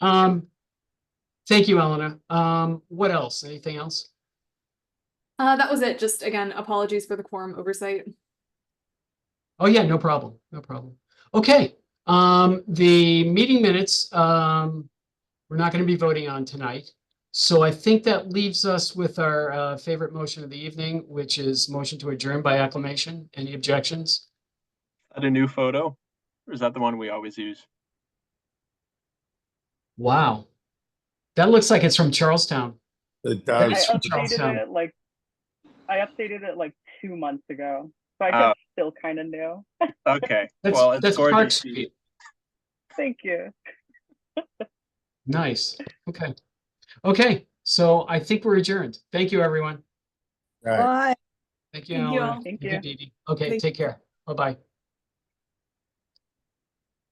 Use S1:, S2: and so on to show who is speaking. S1: Um, thank you, Eleanor. Um, what else? Anything else?
S2: Uh, that was it. Just again, apologies for the quorum oversight.
S1: Oh, yeah, no problem, no problem. Okay, um, the meeting minutes, um, we're not going to be voting on tonight. So I think that leaves us with our, uh, favorite motion of the evening, which is motion to adjourn by acclamation. Any objections?
S3: Add a new photo? Or is that the one we always use?
S1: Wow. That looks like it's from Charlestown.
S4: It
S5: I
S4: does.
S1: It's from Charlestown.
S5: updated it like, I updated it like two months ago, so I
S3: Ah.
S5: guess still kind of new.
S3: Okay,
S1: That's,
S3: well, it's
S1: that's Park
S3: gorgeous.
S1: Street.
S5: Thank you.
S1: Nice. Okay. Okay, so I think we're adjourned. Thank you, everyone.
S4: Right.
S6: Bye.
S1: Thank you.
S2: Thank you
S1: Eleanor.
S2: all.
S5: Thank you.
S1: Dee Dee. Okay,
S6: Thank-
S1: take care. Bye-bye.